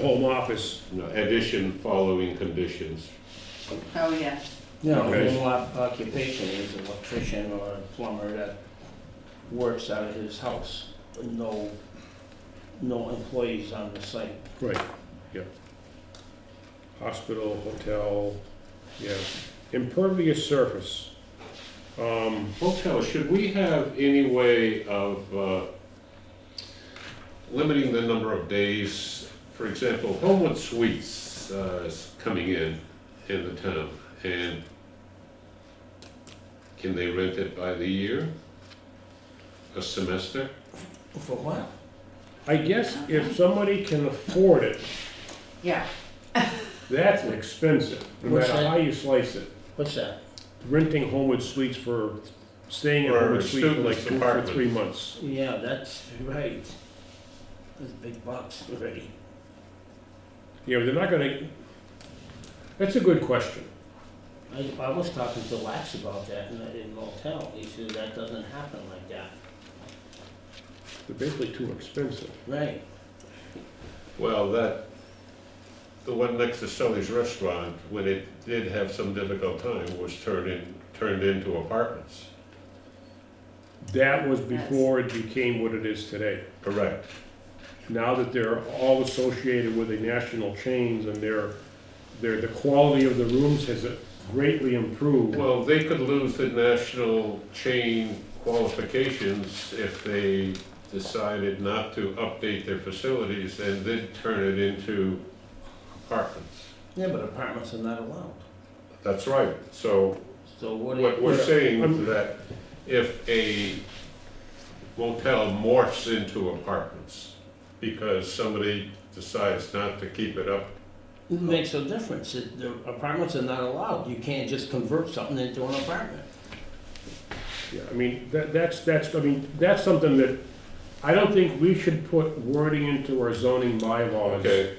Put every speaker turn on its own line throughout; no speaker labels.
Home office
No, addition following conditions.
Oh, yeah.
No,
Okay.
his op- occupation is an electrician or a plumber that works out of his house. No, no employees on the site.
Right, yep. Hospital, hotel, yeah. Impervious surface. Um,
Hotel, should we have any way of uh, limiting the number of days? For example, Homewood Suites uh, is coming in, in the town, and can they rent it by the year? A semester?
For what?
I guess if somebody can afford it,
Yeah.
that's expensive, no
What's
matter
that?
how you slice it.
What's that?
Renting Homewood Suites for, staying at
Or
Homewood Suites for like
students'
two or
apartment.
three months.
Yeah, that's right. That's big bucks already.
Yeah, but they're not gonna, that's a good question.
I, I was talking to Lax about that in, in motel. He said that doesn't happen like that.
They're basically too expensive.
Right.
Well, that, the one next to Sully's Restaurant, when it did have some difficult time, was turned in, turned into apartments.
That was
That's-
before it became what it is today.
Correct.
now that they're all associated with the national chains and their, their, the quality of the rooms has greatly improved.
Well, they could lose the national chain qualifications if they decided not to update their facilities and then turn it into apartments.
Yeah, but apartments are not allowed.
That's right. So
So what do
what
you,
we're saying
I'm-
is that if a motel morphs into apartments because somebody decides not to keep it up,
it makes a difference? It- The apartments are not allowed. You can't just convert something into an apartment.
Yeah, I mean, that, that's, that's, I mean, that's something that, I don't think we should put wording into our zoning bylaws
okay,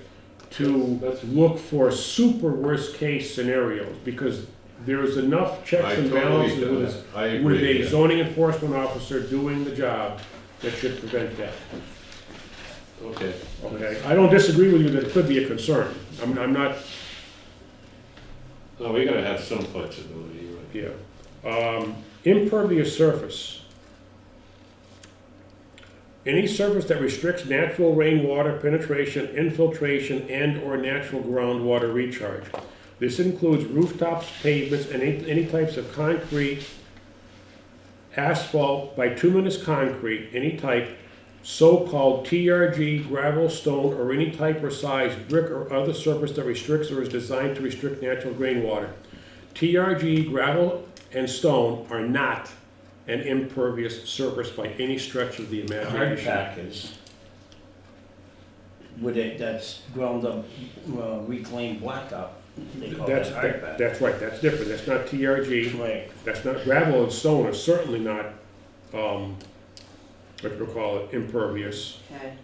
to
That's-
look for super worst-case scenarios, because there's enough
I
checks and
totally,
balances
do
with
that. I agree.
with a
yeah.
zoning enforcement officer doing the job that should prevent that.
Okay.
Okay, I don't disagree with you that it could be a concern. I'm, I'm not,
No, we gotta have some flexibility,
yeah.
right?
Um, impervious surface. Any surface that restricts natural rainwater penetration, infiltration, and/or natural groundwater recharge. This includes rooftops, pavements, and any, any types of concrete, asphalt, bituminous concrete, any type, so-called TRG, gravel, stone, or any type or size, brick or other surface that restricts or is designed to restrict natural rainwater. TRG, gravel, and stone are not an impervious surface by any stretch of the
hard
imagination.
pack is with it, that's ground up uh, reclaimed blacktop. They call
That's,
that hard pack.
that's right, that's different, that's not TRG.
Right.
That's not, gravel and stone are certainly not, um, what you call it, impervious.
Okay.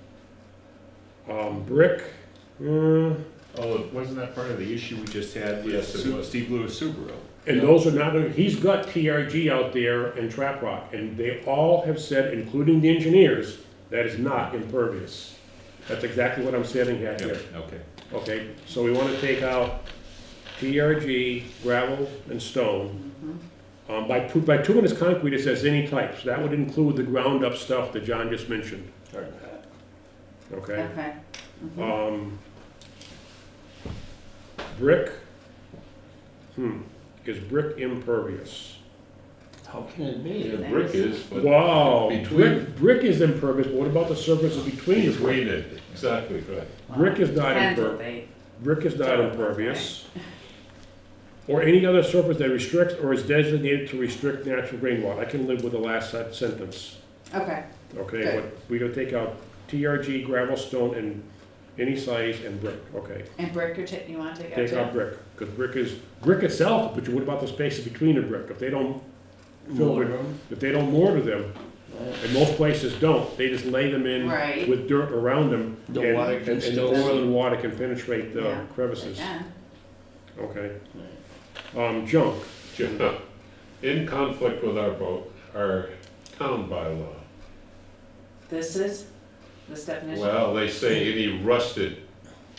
Um, brick, uh,
Oh, wasn't that part of the issue we just had with
Yes, it
Su-
was.
Steve Lewis Subaru?
and those are not, he's got TRG out there and trap rock, and they all have said, including the engineers, that is not impervious. That's exactly what I'm saying at here.
Okay.
Okay, so we wanna take out TRG, gravel, and stone. Um, by, tu- by bituminous concrete, it says any types, that would include the ground-up stuff that John just mentioned,
Hard pack.
okay?
Okay.
Um, brick, hmm, is brick impervious?
How can it be?
The brick is, but.
Wow,
Between,
brick, brick is impervious, but what about the surfaces between the brick?
between it, exactly, right.
Brick is not
Handle
impervious.
date.
Brick is not impervious. Or any other surface that restricts or is designated to restrict natural rainwater. I can live with the last sen- sentence,
Okay.
okay?
Okay.
But we gotta take out TRG, gravel, stone, and any size, and brick, okay?
And brick, you're ta- you want to take out
Take out
too?
brick, because brick is, brick itself, but what about the spaces between the brick? If they don't, Fill it.
Mortar.
if they don't mortar them,
Right.
and most places don't, they just lay them in
Right.
with dirt around them.
The
and-
water can
and-
still-
And oil and water can penetrate the
Yeah.
crevices,
Yeah.
okay?
Right.
Um, junk,
Yeah. In conflict with our vote, our town bylaw.
This is, this definition?
Well, they say any rusted